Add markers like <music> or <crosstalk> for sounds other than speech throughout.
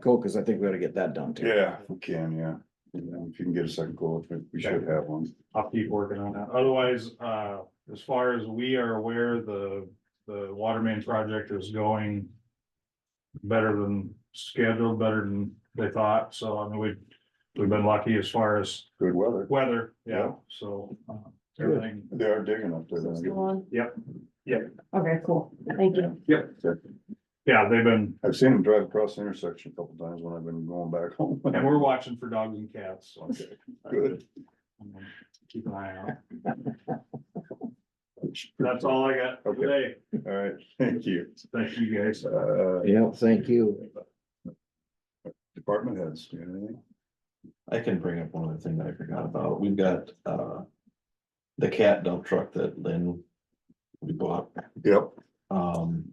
Cool, because I think we ought to get that done too. Yeah, if we can, yeah. You know, If you can get a second goal, I think we should have one. I'll keep working on that. Otherwise, uh, as far as we are aware, the, the water main project is going. Better than scheduled, better than they thought, so I mean, we, we've been lucky as far as Good weather. weather, yeah, so. uh, Everything, They are digging up there. Go on. Yep, yep. Okay, cool, thank you. yeah, they've been, I've seen them drive across the intersection a couple times when I've been going back <laughs> home. and we're watching for dogs and cats, so. Good. I'm gonna Keep an eye out, that's all I got for today, All right, thank you. thank you guys. Uh, Yeah, thank you. department heads, do you have anything? I can bring up one other thing that I forgot about. We've got, uh. The cat dump truck that Lynn. We bought, Yep, um.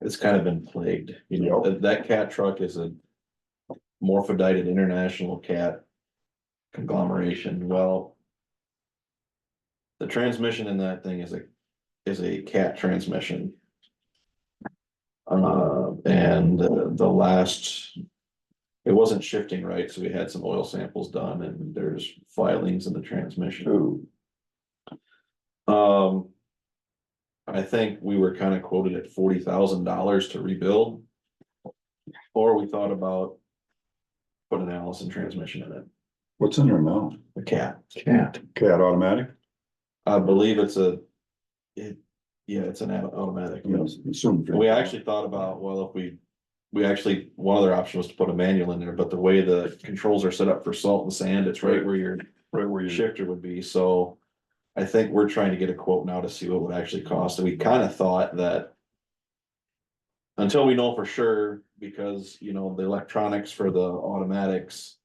It's kind of been plagued, you know, that, that cat truck is a. Morphodited international cat. Conglomeration, well. The transmission in that thing is a, is a cat transmission. Uh, and uh, the last it wasn't shifting right, so we had some oil samples done and there's filings in the transmission. two, Um. I think we were kind of quoted at forty thousand dollars to rebuild. Or we thought about. Put an Allison transmission in it, what's in there now? a cat. Cat. Cat automatic, I believe it's a. It, yeah, it's an auto- automatic. I mean, it's assumed. We actually thought about, well, if we, we actually, one other option was to put a manual in there, but the way the controls are set up for salt and sand, it's right where your Right where you. shifter would be, so. I think we're trying to get a quote now to see what it would actually cost, and we kind of thought that. Until we know for sure, because, you know, the electronics for the automatics.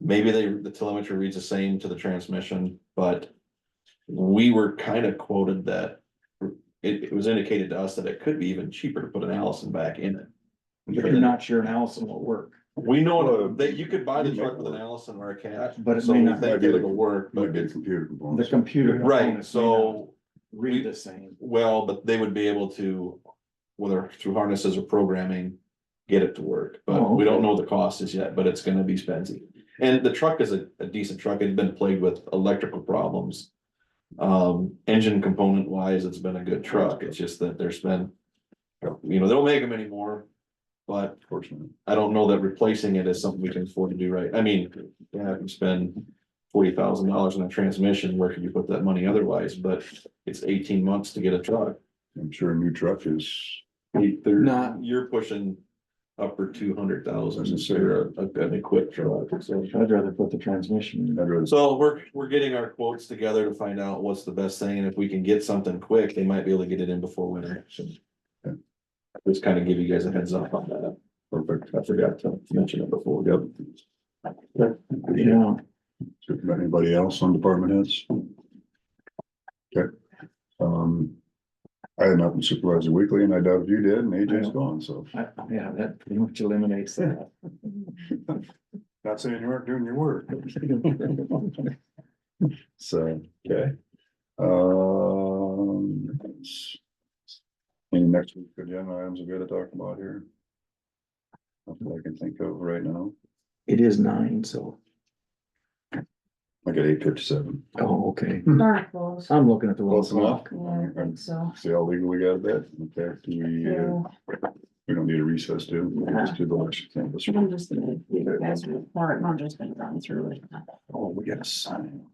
Maybe they, the telemetry reads the same to the transmission, but. We were kind of quoted that. It, it was indicated to us that it could be even cheaper to put an Allison back in it. You're not sure an Allison will work, We know that you could buy the truck with an Allison or a cat, but it so may we not, think it'll work, Might but be a it's, computer the components. computer. components may right, not so. Read the same. Well, but they would be able to, whether through harnesses or programming, get it to work, but Oh, we don't okay. know what the cost is yet, but it's gonna be expensive. And the truck is a, a decent truck, it's been plagued with electrical problems. Um, engine component wise, it's been a good truck, it's just that there's been, you know, they don't make them anymore. But Unfortunately. I don't know that replacing it is something we can afford to do right, I mean, yeah, if you spend forty thousand dollars on a transmission, where could you put that money otherwise, but it's eighteen months to get a truck. I'm sure a new truck is, Eight, they're- Not- You're pushing upper two hundred thousand, Doesn't for a, an equipped truck, so. I'd rather put the transmission in. I'd rather- So we're, we're getting our quotes together to find out what's the best thing, and if we can get something quick, they might be able to get it in before winter. so. Just kind of give you guys a heads up on that, perfect. I forgot to mention it before. Yep. Yeah, Anybody else on department heads? Okay. Um, I had nothing supervisor weekly and I doubt if you did and AJ's gone, so. I- yeah, that pretty much eliminates that. <laughs> Not saying you weren't doing your work. <laughs> So, okay. Um. that's- Any next week agenda items we gotta talk about here? Nothing I can think of right now. It is nine, so, I got eight fifty-seven. oh, okay. Darn close. I'm looking at the wrong Close enough. clock. Yeah, I think so. See how legal we got that? Okay, do we, uh, So, we don't need a recess, do? we? We'll just do the election canvas. I'm just gonna, give you guys a report, and I'm just gonna run through it. Oh, we gotta sign.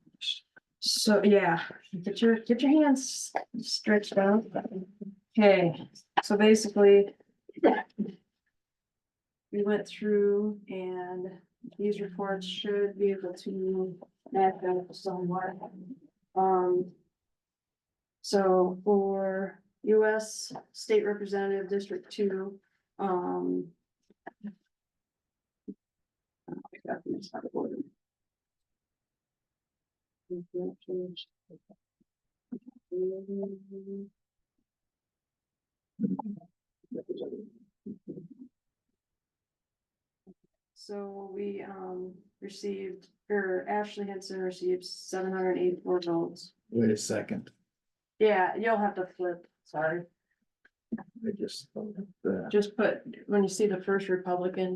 So, yeah, get your, get your hands stretched out. Okay, so basically. We went through and these reports should be able to map out somewhat. Um. So for US State Representative District Two, um. I got these out of order. So we um received, or Ashley Henson received seven hundred and eighty-four votes. Wait a second. Yeah, you'll have to flip, sorry. I just, thought that. just put, when you see the first Republican,